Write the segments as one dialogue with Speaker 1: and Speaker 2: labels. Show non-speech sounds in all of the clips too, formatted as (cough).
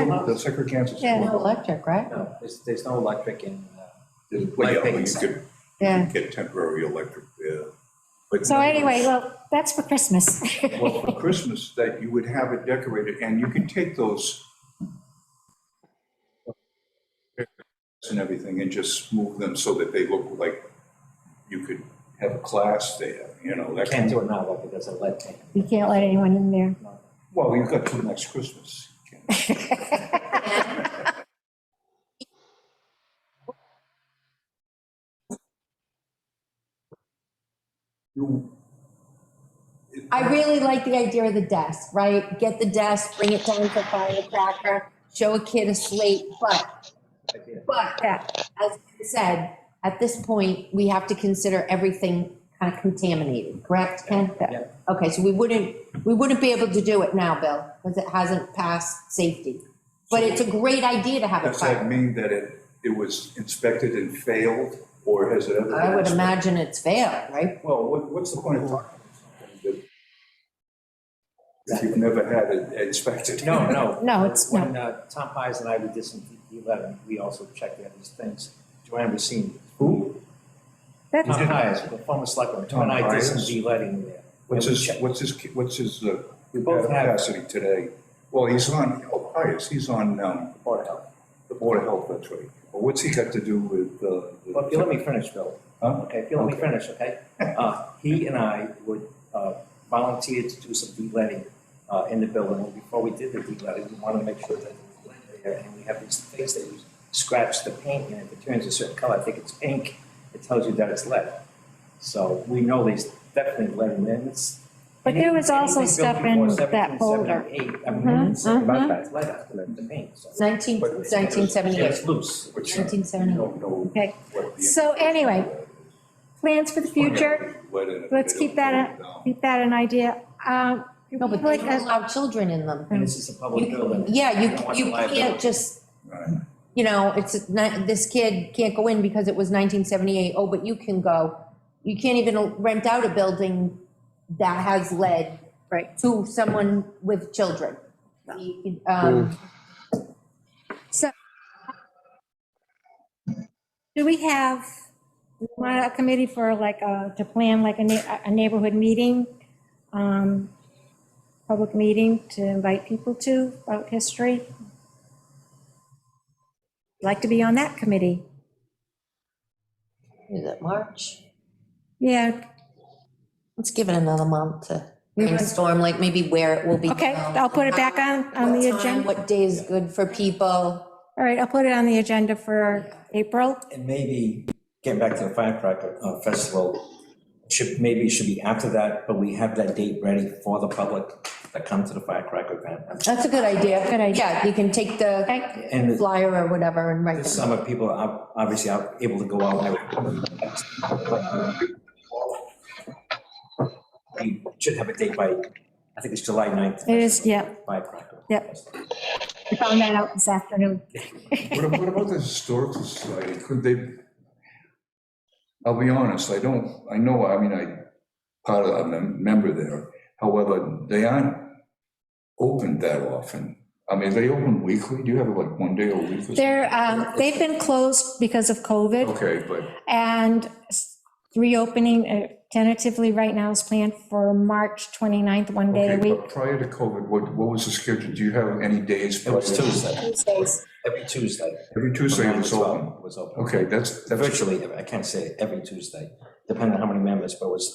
Speaker 1: Yeah.
Speaker 2: The Secretary cancels.
Speaker 1: Yeah.
Speaker 3: No electric, right?
Speaker 4: No, there's, there's no electric in, uh,
Speaker 5: Well, yeah, well, you could
Speaker 1: Yeah.
Speaker 5: get temporary electric, yeah. But
Speaker 1: So
Speaker 5: no,
Speaker 1: anyway, well, that's for Christmas.
Speaker 2: (laughs) Well, for Christmas, that you would have it decorated, and you can take those and everything and just move them so that they look like you could have a class there, you know, that kind
Speaker 4: can't do
Speaker 2: of,
Speaker 4: it now, though, because of lead paint.
Speaker 1: You can't let anyone in there.
Speaker 2: well, you've got till next Christmas. You- it-
Speaker 3: I really like the idea of the desk, right? Get the desk, bring it down for firecracker, show a kid a slate, but,
Speaker 4: Idea.
Speaker 3: but, as you said, at this point, we have to consider everything kind of contaminated, correct, Ken?
Speaker 4: Yeah.
Speaker 3: Okay, so we wouldn't, we wouldn't be able to do it now, Bill, because it hasn't passed safety. But it's a great idea to have a
Speaker 2: Does that
Speaker 3: fire.
Speaker 2: mean that it, it was inspected and failed, or has it ever? been
Speaker 3: I would
Speaker 2: inspected?
Speaker 3: imagine it's failed, right?
Speaker 2: Well, what, what's the point of talking about something uh, that if you've never had it inspected?
Speaker 4: No, no.
Speaker 1: No, it's not.
Speaker 4: When uh, Tom Pies and I, we did some eleven, we also checked out these things. Joanne was seeing, who?
Speaker 1: That's-
Speaker 4: Tom Pies, the former selectman, Tom and I did some
Speaker 2: Pius?
Speaker 4: de-letting there.
Speaker 2: (laughs) What's
Speaker 4: And we
Speaker 2: his,
Speaker 4: checked-
Speaker 2: what's his, what's his uh,
Speaker 4: We both have
Speaker 2: capacity today? Well, he's on, oh, Pius, he's on, um,
Speaker 4: Board of Health.
Speaker 2: the Board of Health, that's right. But what's he got to do with, uh? the-
Speaker 4: Well, if you let me finish, Bill,
Speaker 2: Huh?
Speaker 4: okay, if you let me finish, okay? Uh, He and I would uh, volunteer to do some de-letting uh, in the building. And Before we did the de-letting, we wanted to make sure that it was lit there. And we have these things that we scratch the paint and if it turns a certain color, I think it's pink, it tells you that it's lead. So we know there's definitely lead in there. and it's-
Speaker 1: But there was also
Speaker 4: anything built
Speaker 1: stuff in
Speaker 4: before
Speaker 1: that folder.
Speaker 4: 1778, I mean, it's about
Speaker 1: mhm.
Speaker 4: that, it's lead after the paint, so.
Speaker 3: 19
Speaker 4: Yeah,
Speaker 3: 1978.
Speaker 4: It's loose.
Speaker 2: Which, uh,
Speaker 3: 1978.
Speaker 2: you don't know
Speaker 1: Okay.
Speaker 2: what the-
Speaker 1: So anyway, plans for the future,
Speaker 2: Let it-
Speaker 1: let's keep that
Speaker 2: No.
Speaker 1: keep that an idea. Um, do
Speaker 3: No,
Speaker 1: we
Speaker 3: but they
Speaker 1: like
Speaker 3: don't
Speaker 1: a-
Speaker 3: allow children in them.
Speaker 4: And this is a public
Speaker 3: You-
Speaker 4: building.
Speaker 3: Yeah, you,
Speaker 4: I don't want
Speaker 3: you
Speaker 4: the liability.
Speaker 3: can't just,
Speaker 2: Right.
Speaker 3: you know, it's, not- this kid can't go in because it was 1978. Oh, but you can go. You can't even rent out a building that has lead
Speaker 1: Right.
Speaker 3: to someone with children. You could, um,
Speaker 1: Do we have, we want a committee for like, uh, to plan like a na- a neighborhood meeting? um, Public meeting to invite people to about history? Like to be on that committee?
Speaker 3: Is it March?
Speaker 1: Yeah,
Speaker 3: Let's give it another month to
Speaker 1: We would-
Speaker 3: brainstorm, like maybe where it will be.
Speaker 1: okay,
Speaker 3: held,
Speaker 1: I'll put it back on, on the
Speaker 3: what time,
Speaker 1: agenda.
Speaker 3: What day is good for people?
Speaker 1: All right, I'll put it on the agenda for April.
Speaker 4: And maybe, getting back to the firecracker uh, festival, should, maybe it should be after that, but we have that date ready for the public that come to the firecracker event.
Speaker 3: That's a good idea.
Speaker 1: Good idea.
Speaker 3: Yeah, you can take the
Speaker 1: Okay,
Speaker 4: And the-
Speaker 3: flyer or whatever and write them.
Speaker 4: this summer, people are ob- obviously are able to go out. and- We should have a date by, I think it's July 9th.
Speaker 1: It is, yeah,
Speaker 4: Firecracker.
Speaker 1: Yep.
Speaker 4: festival.
Speaker 1: I found that out this afternoon.
Speaker 2: What ab- what about the historical society? Could they, I'll be honest, I don't, I know, I mean, I, part of, I'm a member there. However, they aren't opened that often. I mean, they open weekly? Do you have like one day a week? or something?
Speaker 1: They're, um, they've been closed because of COVID.
Speaker 2: Okay, but,
Speaker 1: And reopening uh, tentatively right now is planned for March 29th, one day
Speaker 2: okay,
Speaker 1: a week.
Speaker 2: but prior to COVID, what, what was the schedule? Do you have any days?
Speaker 4: It was
Speaker 2: prior?
Speaker 4: Tuesday,
Speaker 1: Tuesdays.
Speaker 4: every Tuesday.
Speaker 2: Every Tuesday it
Speaker 4: Nine to
Speaker 2: was
Speaker 4: 12
Speaker 2: open.
Speaker 4: Was open.
Speaker 2: Okay, that's, that's,
Speaker 4: virtually, every- I can't say every Tuesday, depending on how many members, but it was.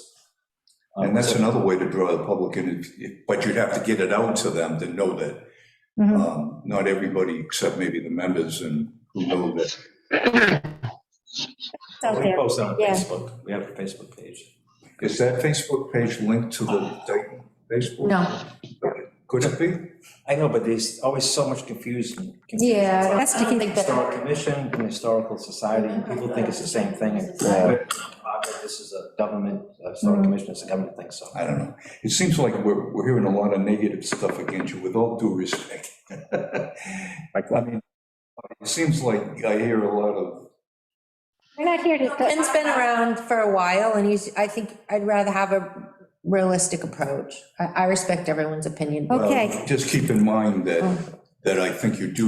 Speaker 4: uh,
Speaker 2: and that's
Speaker 4: so-
Speaker 2: another way to draw the public in, if- if- but you'd have to get it out to them to know that
Speaker 1: Mhm.
Speaker 2: um, not everybody except maybe the members and who know that.
Speaker 1: It's out
Speaker 4: We
Speaker 1: there.
Speaker 4: post on
Speaker 1: yeah.
Speaker 4: Facebook, we have a Facebook page.
Speaker 2: Is that Facebook page linked to the Dayton Facebook?
Speaker 3: No,
Speaker 2: Could it be?
Speaker 4: I know, but there's always so much confusion. confusion.
Speaker 3: yeah. I don't-
Speaker 1: That's to
Speaker 3: I don't
Speaker 1: keep-
Speaker 3: think that-
Speaker 4: Historic Commission and Historical Society, and people think it's the same thing. and- Uh, This is a government, uh, Historic Commission is a government thing, so.
Speaker 2: I don't know. It seems like we're, we're hearing a lot of negative stuff against you, with all due respect. (laughs) I mean, it seems like I hear a lot of,
Speaker 1: We're not here to,
Speaker 3: Ken's been around for a while, and he's, I think I'd rather have a realistic approach. I, I respect everyone's opinion.
Speaker 2: um,
Speaker 1: Okay.
Speaker 2: well, just keep in mind that that I think you do